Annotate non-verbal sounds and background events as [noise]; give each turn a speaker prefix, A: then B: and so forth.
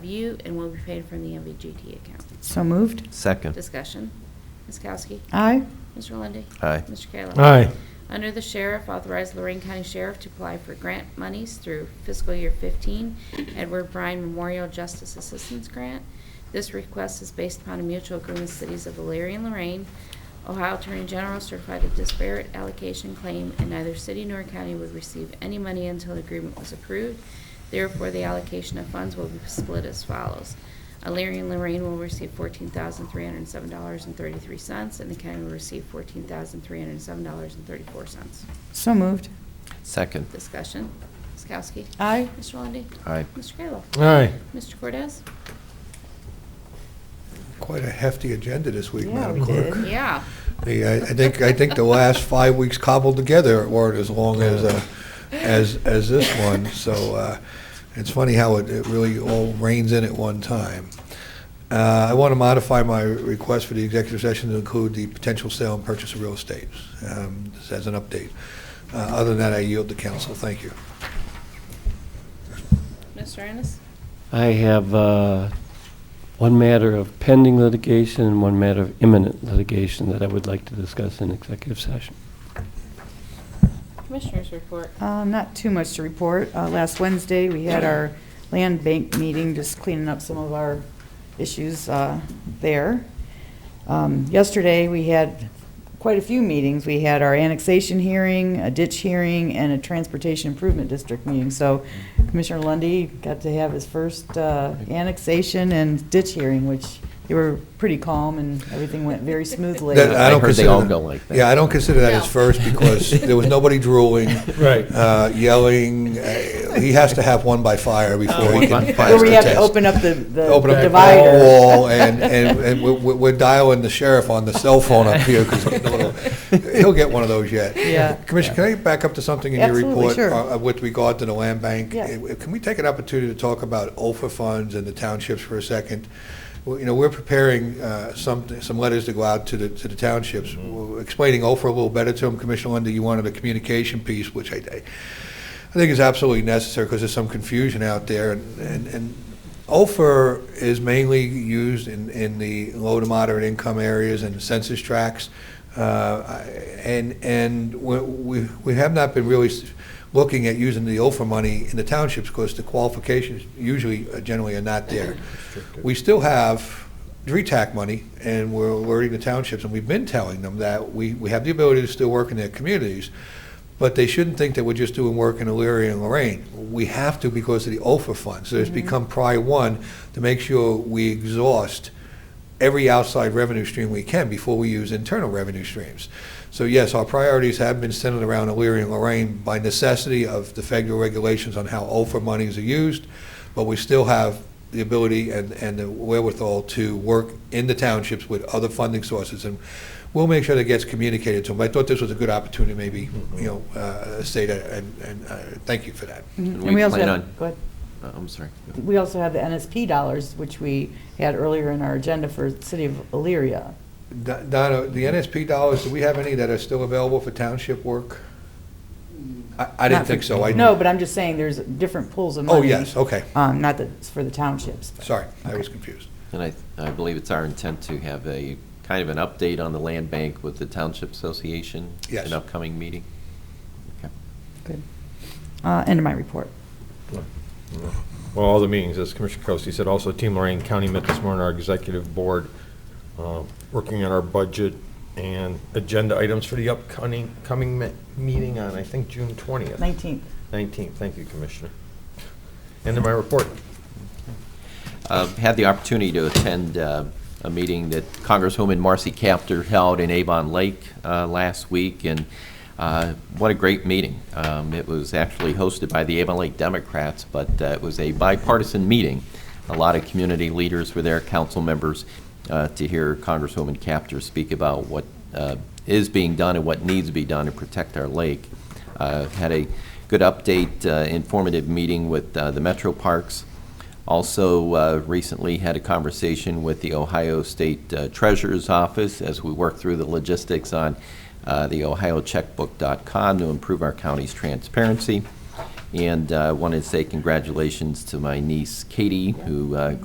A: MOU and will be paid from the MVGT account.
B: So moved.
C: Second.
A: Discussion. Ms. Kowski?
B: Aye.
A: Mr. Lundy.
C: Aye.
A: Mr. Kayla?
D: aye,
A: Under the Sheriff, authorize Lorraine County Sheriff to apply for grant monies through fiscal year 15 Edward Bryan Memorial Justice Assistance Grant. This request is based upon a mutual agreement with cities of Elyria and Lorraine. Ohio Attorney General certified a disparate allocation claim, and neither city nor county would receive any money until the agreement was approved. Therefore, the allocation of funds will be split as follows. Alariah Uh, and Lorraine will receive fourteen thousand three hundred and seven dollars and thirty-three cents, and the county will receive fourteen thousand three hundred and seven dollars and thirty-four cents.
B: So moved.
C: Second.
A: Discussion. Ms. Kowski?
B: Aye.
A: Mr. Lundey?
C: Aye.
A: Mr. Kayla?
D: aye.
A: Mr. Cordez?
E: Quite a hefty agenda this week,
B: Yeah,
E: Madam
B: we
E: Clerk.
B: did.
A: Yeah.
E: Yeah, I think, I think the last five weeks cobbled together weren't as long as, uh, as, as this one, so uh, it's funny how it it really all rains in at one time. Uh, I want to modify my request for the executive session to include the potential sale and purchase of real estate, um, just as an update. Uh, Other than that, I yield to council. Thank you.
A: Mr. Ennis?
F: I have uh, one matter of pending litigation and one matter of imminent litigation that I would like to discuss in executive session.
A: Commissioners report.
B: Uh, Not too much to report. Uh, Last Wednesday, we had our land bank meeting, just cleaning up some of our issues uh, there. Um, Yesterday, we had quite a few meetings. We had our annexation hearing, a ditch hearing, and a transportation improvement district meeting. So Commissioner Lundy got to have his first uh, annexation and ditch hearing, which they were pretty calm and everything went very smoothly.
E: That- I
C: I
E: don't
C: heard they
E: consider
C: all
E: that-
C: go like that.
E: Yeah, I don't consider that
A: No.
E: his first because
B: [laughs]
E: there was nobody drooling,
D: Right.
E: uh, yelling. Uh, He has to have one by fire before he
C: Oh, One
E: can
C: by
E: pass
C: fire.
B: Where
E: the
B: we have to
E: test.
B: open up the the
E: Open up the
B: divider. [laughs]
E: wall and, and, and we- we- we're dialing the sheriff on the cell phone up here because he'll get one of those yet.
B: Yeah.
E: Commissioner, can I back up to something in your
B: Absolutely,
E: report?
B: sure.
E: uh, With regard to the land bank?
B: Yeah.
E: Uh, Can we take an opportunity to talk about OFA funds and the townships for a second? Well, You know, we're preparing uh, some, some letters to go out to the, to the townships, Well, explaining OFA a little better to them. Commissioner Lundy, you wanted a communication piece, which I, I I think is absolutely necessary because there's some confusion out there. And, and, and OFER is mainly used in, in the low to moderate income areas and census tracts. Uh, I- And, and we, we- we have not been really s- looking at using the OFER money in the townships because the qualifications usually, uh, generally are not there. We still have E DRETAC money and we're alerting the townships and we've been telling them that we, we have the ability to still work in their communities. But they shouldn't think that we're just doing work in Elyria and Lorraine. We have to because of the OFA funds. So it's become prior one to make sure we exhaust every outside revenue stream we can before we use internal revenue streams. So yes, our priorities have been centered around Elyria and Lorraine by necessity of the federal regulations on how OFA monies are used, but we still have the ability and, and the wherewithal to work in the townships with other funding sources. And we'll make sure that gets communicated to them. I thought this was a good opportunity, maybe, you know, uh, say that, and, and uh, thank you for that.
B: Mhm.
C: We
B: And also
C: plan
B: have-
C: on-
B: Go ahead.
C: Uh, I'm sorry.
B: We also have the NSP dollars, which we had earlier in our agenda for City of Elyria.
E: Don- Donna, the NSP dollars, do we have any that are still available for township work? I, I didn't
B: Not
E: think
B: for-
E: so. I-
B: No, but I'm just saying there's different pools of money.
E: Oh, yes, okay.
B: Um, not that it's for the townships. but-
E: Sorry, I
B: Okay.
E: was confused.
C: And I, I believe it's our intent to have a, kind of an update on the land bank with the Township Association.
E: Yes.
C: An upcoming meeting. Okay.
B: Good. Uh, end of my report.
D: Well, all the meetings, as Commissioner Kowski said, also Team Lorraine County met this morning, our executive board, uh, working on our budget and agenda items for the upcoming, coming me- meeting on, I think, June 20th.
B: Nineteenth.
D: 19th, thank you, Commissioner. End of my report.
C: Uh, Had the opportunity to attend uh, a meeting that Congresswoman Marcy Kaptur held in Avon Lake uh, last week, and uh, what a great meeting. Um, It was actually hosted by the Avon Lake Democrats, but uh, it was a bipartisan meeting. A lot of community leaders were there, council members, uh, to hear Congresswoman Kaptur speak about what uh, is being done and what needs to be done to protect our lake. Uh, Had a good update, uh, informative meeting with uh, the Metro Parks. Also, uh, recently had a conversation with the Ohio State uh, Treasurer's Office as we work through the logistics on uh, the ohiocheckbook.com to improve our county's transparency. And uh, wanted to say congratulations to my niece Katie, who uh,